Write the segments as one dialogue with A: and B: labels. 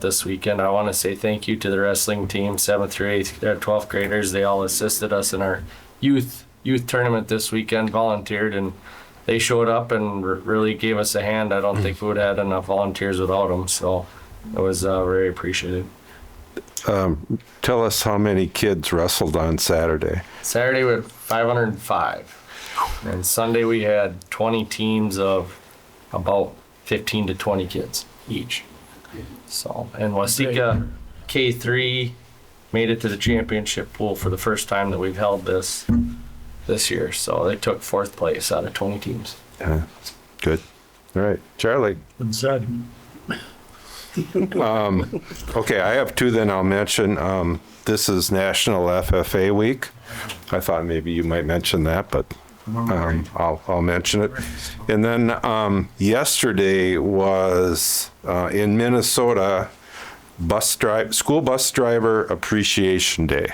A: this weekend. I want to say thank you to the wrestling team, seventh through eighth, uh, 12th graders. They all assisted us in our youth youth tournament this weekend, volunteered, and they showed up and r- really gave us a hand. I don't think we would have had enough volunteers without them. So it was uh, very appreciated.
B: Tell us how many kids wrestled on Saturday.
A: Saturday we had 505, and Sunday we had 20 teams of about 15 to 20 kids each. So, and Wasika K3 made it to the championship pool for the first time that we've held this this year. So they took fourth place out of 20 teams.
B: Uh, good. All right, Charlie.
C: and said,
B: Okay, I have two. Then I'll mention. Um, this is National FFA Week. I thought maybe you might mention that, but um, I'll, I'll mention it. And then um, yesterday was uh, in Minnesota, bus drive school bus driver appreciation day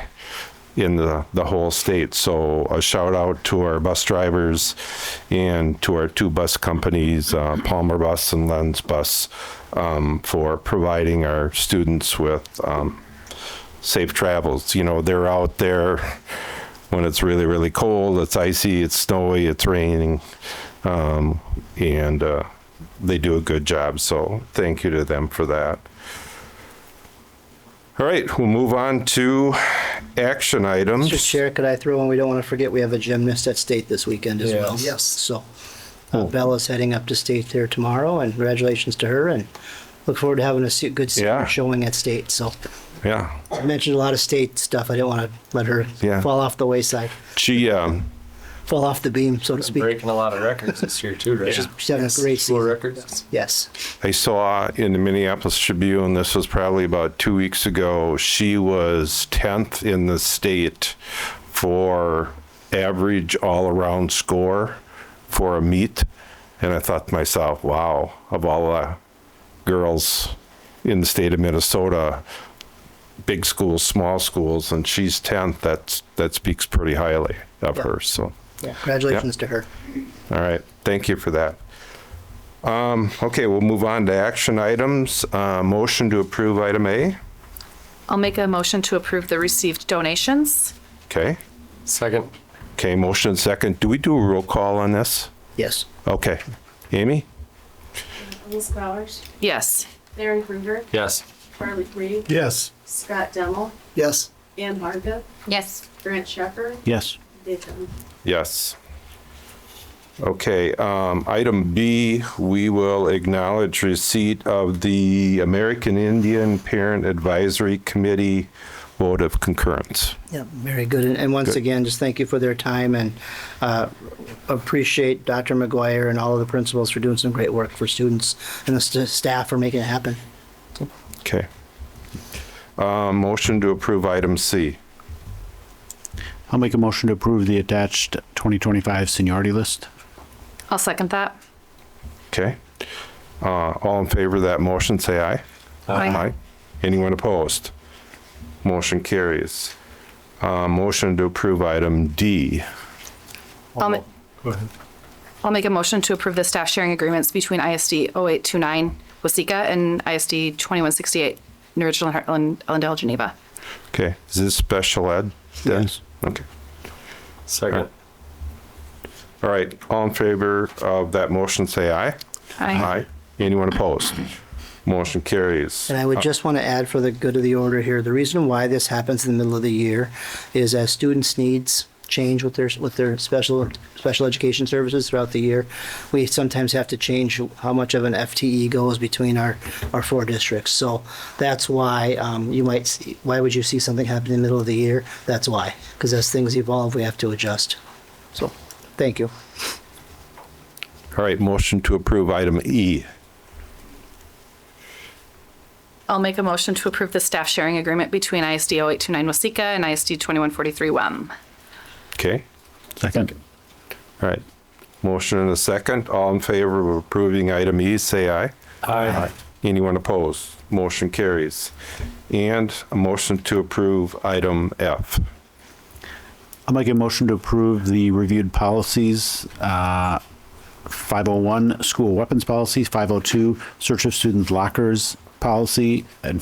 B: in the, the whole state. So a shout out to our bus drivers and to our two bus companies, uh, Palmer Bus and Lens Bus, um, for providing our students with um, safe travels. You know, they're out there when it's really, really cold, it's icy, it's snowy, it's raining, um, and uh, they do a good job. So thank you to them for that. All right, we'll move on to action items.
D: Mr. Chair, could I throw in, we don't want to forget, we have a gymnast at state this weekend as well.
A: Yes.
D: Yes. So uh, Bella's heading up to state there tomorrow, and congratulations to her, and look forward to having a se- good se-
B: Yeah.
D: showing at state. So
B: Yeah,
D: I mentioned a lot of state stuff. I didn't want to let her
B: Yeah.
D: fall off the wayside,
B: she um,
D: fall off the beam, so to speak.
A: Breaking a lot of records this year too, right?
D: She's having a great
A: School
D: season.
A: records.
D: Yes.
B: I saw in the Minneapolis Tribune, this was probably about two weeks ago, she was 10th in the state for average all around score for a meet. And I thought to myself, wow, of all the girls in the state of Minnesota, big schools, small schools, and she's 10th, that's, that speaks pretty highly of
D: Yeah.
B: her. So,
D: Yeah. Congratulations to her.
B: all right, thank you for that. Um, Okay, we'll move on to action items. Uh, Motion to approve item A.
E: I'll make a motion to approve the received donations.
B: Okay,
A: Second.
B: okay, motion and second. Do we do a roll call on this?
D: Yes.
B: Okay, Amy?
F: Ms. Bowers,
E: Yes.
F: Larry Kruger,
A: Yes.
F: Charlie Reed,
C: yes,
F: Scott Demmel,
D: Yes.
F: Ann Marga,
E: Yes.
F: Grant Shepherd,
C: yes,
F: Dave Dunn.
B: Yes. Okay, um, item B, we will acknowledge receipt of the American Indian Parent Advisory Committee vote of concurrence.
D: Yeah, very good. And, and once
B: Good.
D: again, just thank you for their time and uh, appreciate Dr. McGuire and all of the principals for doing some great work for students and the st- staff for making it happen.
B: Okay. Uh, Motion to approve item C.
G: I'll make a motion to approve the attached 2025 seniority list.
E: I'll second that.
B: Okay. Uh, All in favor of that motion, say aye. Anyone opposed? Motion carries. Uh, Motion to approve item D.
E: I'll ma-
C: go ahead.
E: I'll make a motion to approve the staff sharing agreements between ISD 0829 Wasika and ISD 2168 New Ridge and Heartland, Ellendale, Geneva.
B: Okay, is this special ed? Yes. Okay.
A: Second.
B: All right, all in favor of that motion, say aye. Anyone opposed? Motion carries.
D: And I would just want to add for the good of the order here, the reason why this happens in the middle of the year is as students' needs change with their with their special special education services throughout the year, we sometimes have to change how much of an FTE goes between our our four districts. So that's why um, you might see, why would you see something happen in the middle of the year? That's why because as things evolve, we have to adjust. So thank you.
B: All right, motion to approve item E.
E: I'll make a motion to approve the staff sharing agreement between ISD 0829 Wasika and ISD 2143 WEM.
B: Okay,
G: Second.
B: all right. Motion and a second. All in favor of approving item E, say aye.
A: Aye.
B: Anyone opposed? Motion carries. And a motion to approve item F.
G: I'll make a motion to approve the reviewed policies, uh, 501 school weapons policy, 502 search of students' lockers policy, and